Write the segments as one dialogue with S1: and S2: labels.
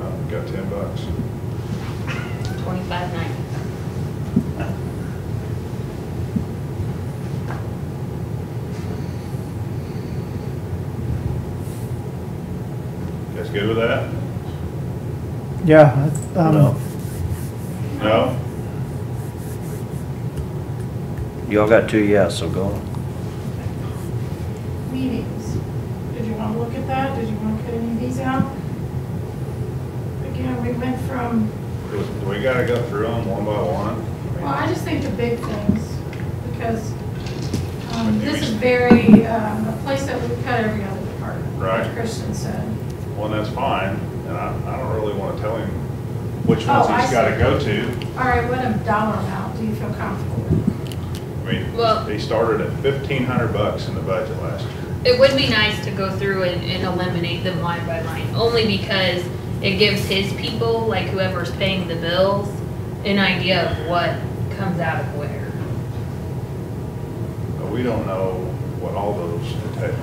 S1: Um, got ten bucks.
S2: Twenty-five ninety.
S1: Guys good with that?
S3: Yeah, um,
S4: No.
S1: No?
S4: Y'all got two yes, so go.
S5: meetings. Did you want to look at that? Did you want to cut any of these out? Again, we went from,
S1: Do we gotta go through them one by one?
S5: well, I just think the big things, because um,
S1: Maybe
S5: this is
S1: we-
S5: very, um, a place that we cut every other department. like
S1: Right.
S5: Kristen said.
S1: Well, that's fine, and I, I don't really wanna tell him which
S5: Oh,
S1: ones
S5: I
S1: he's
S5: see.
S1: gotta go to.
S5: All right, what a dollar amount do you feel comfortable with?
S1: I
S2: Well-
S1: mean, he started at fifteen hundred bucks in the budget last year.
S2: It would be nice to go through and, and eliminate them line by line, only because it gives his people, like whoever's paying the bills, an idea of what comes out of where.
S1: But we don't know what all those entail.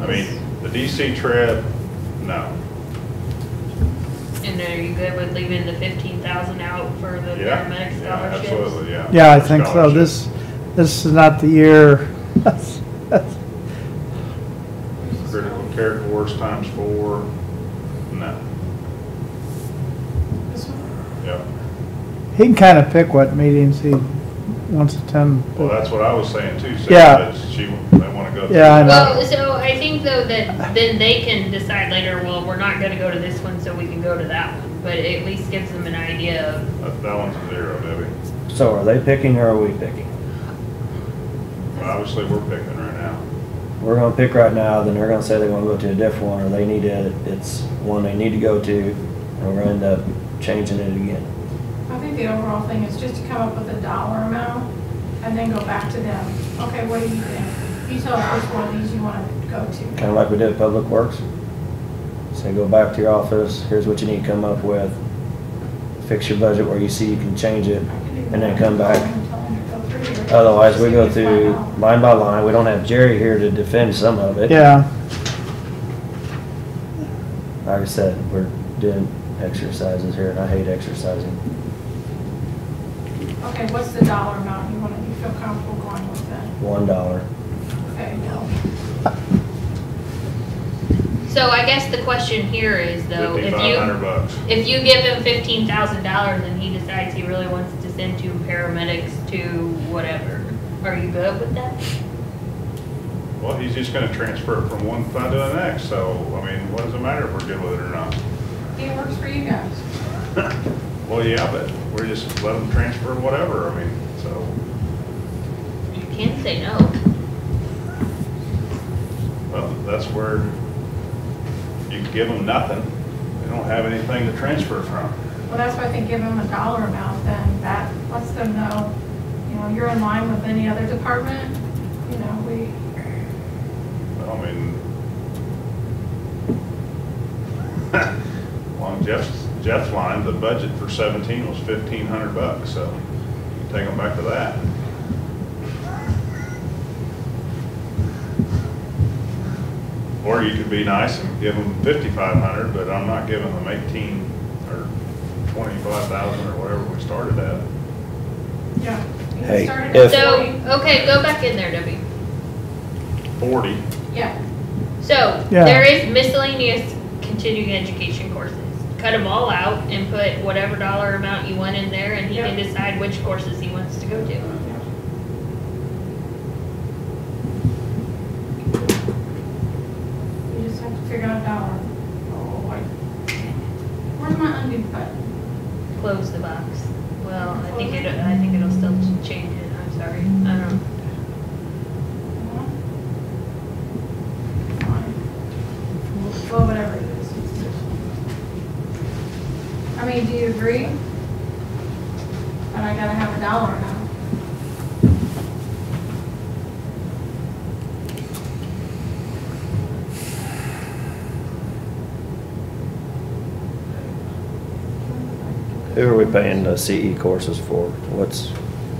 S1: I mean, the DC trip, no.
S2: And are you good with leaving the fifteen thousand out for the
S1: Yeah, yeah,
S2: paramedic scholarships?
S1: Absolutely, yeah.
S3: yeah, I think so.
S1: Scholarships.
S3: This, this is not the year.
S1: Critical care course times four, no,
S5: This one?
S1: yeah.
S3: He can kind of pick what meetings he wants to attend.
S1: Well, that's what I was saying too, Sarah,
S3: Yeah.
S1: that she, they wanna go. through
S3: Yeah, I
S1: it.
S3: know.
S2: Well, Oh, so I think though that then they can decide later, well, we're not gonna go to this one, so we can go to that one. But it at least gives them an idea of
S1: That, that one's a zero, Debbie.
S4: So are they picking or are we picking?
S1: But obviously, we're picking right now.
S4: We're gonna pick right now, then they're gonna say they wanna go to a different one, or they need it, it's one they need to go to, and we're gonna end up changing it again.
S5: I think the overall thing is just to come up with a dollar amount and then go back to them. Okay, what do you think? You tell us which one of these you want to go to.
S4: Kinda like we did at Public Works. Say, go back to your office, here's what you need to come up with, fix your budget where you see you can change it, and then come back. Otherwise, we go through line by line, we don't have Jerry here to defend some of it.
S3: Yeah,
S4: Like I said, we're doing exercises here, and I hate exercising.
S5: Okay, what's the dollar amount you want to, you feel comfortable going with then?
S4: One dollar.
S5: Okay, no.
S2: So I guess the question here is though, if
S1: Fifty-five hundred
S2: you,
S1: bucks.
S2: if you give him fifteen thousand dollars and he decides he really wants to send two paramedics to whatever, are you good with that?
S1: Well, he's just gonna transfer it from one fund to the next, so, I mean, what does it matter if we're good with it or not?
S5: It works for you guys.
S1: Well, yeah, but we're just let them transfer whatever, I mean, so,
S2: You can say no.
S1: well, that's where you can give them nothing. They don't have anything to transfer from.
S5: Well, that's why I think give them a dollar amount then, that lets them know, you know, you're in line with any other department, you know, we,
S1: Well, I mean, along Jeff's, Jeff's line, the budget for seventeen was fifteen hundred bucks, so you can take them back to that. Or you could be nice and give them fifty-five hundred, but I'm not giving them eighteen or twenty-five thousand or whatever we started at.
S5: yeah. You
S4: Hey,
S5: started
S4: if-
S5: at
S2: So,
S5: 40.
S2: okay, go back in there, Debbie.
S1: Forty,
S5: Yeah,
S2: So,
S3: Yeah.
S2: there is miscellaneous continuing education courses. Cut them all out and put whatever dollar amount you want in there and he can
S5: Yep.
S2: decide which courses he wants to go to.
S5: you just have to figure out a dollar. Oh, wait. Where's my undo button?
S2: Close the box. Well, I think it, I think it'll still ch- change it, I'm sorry, I don't know.
S5: Well, whatever it is. I mean, do you agree? But I gotta have a dollar now.
S4: Who are we paying the CE courses E for? What's,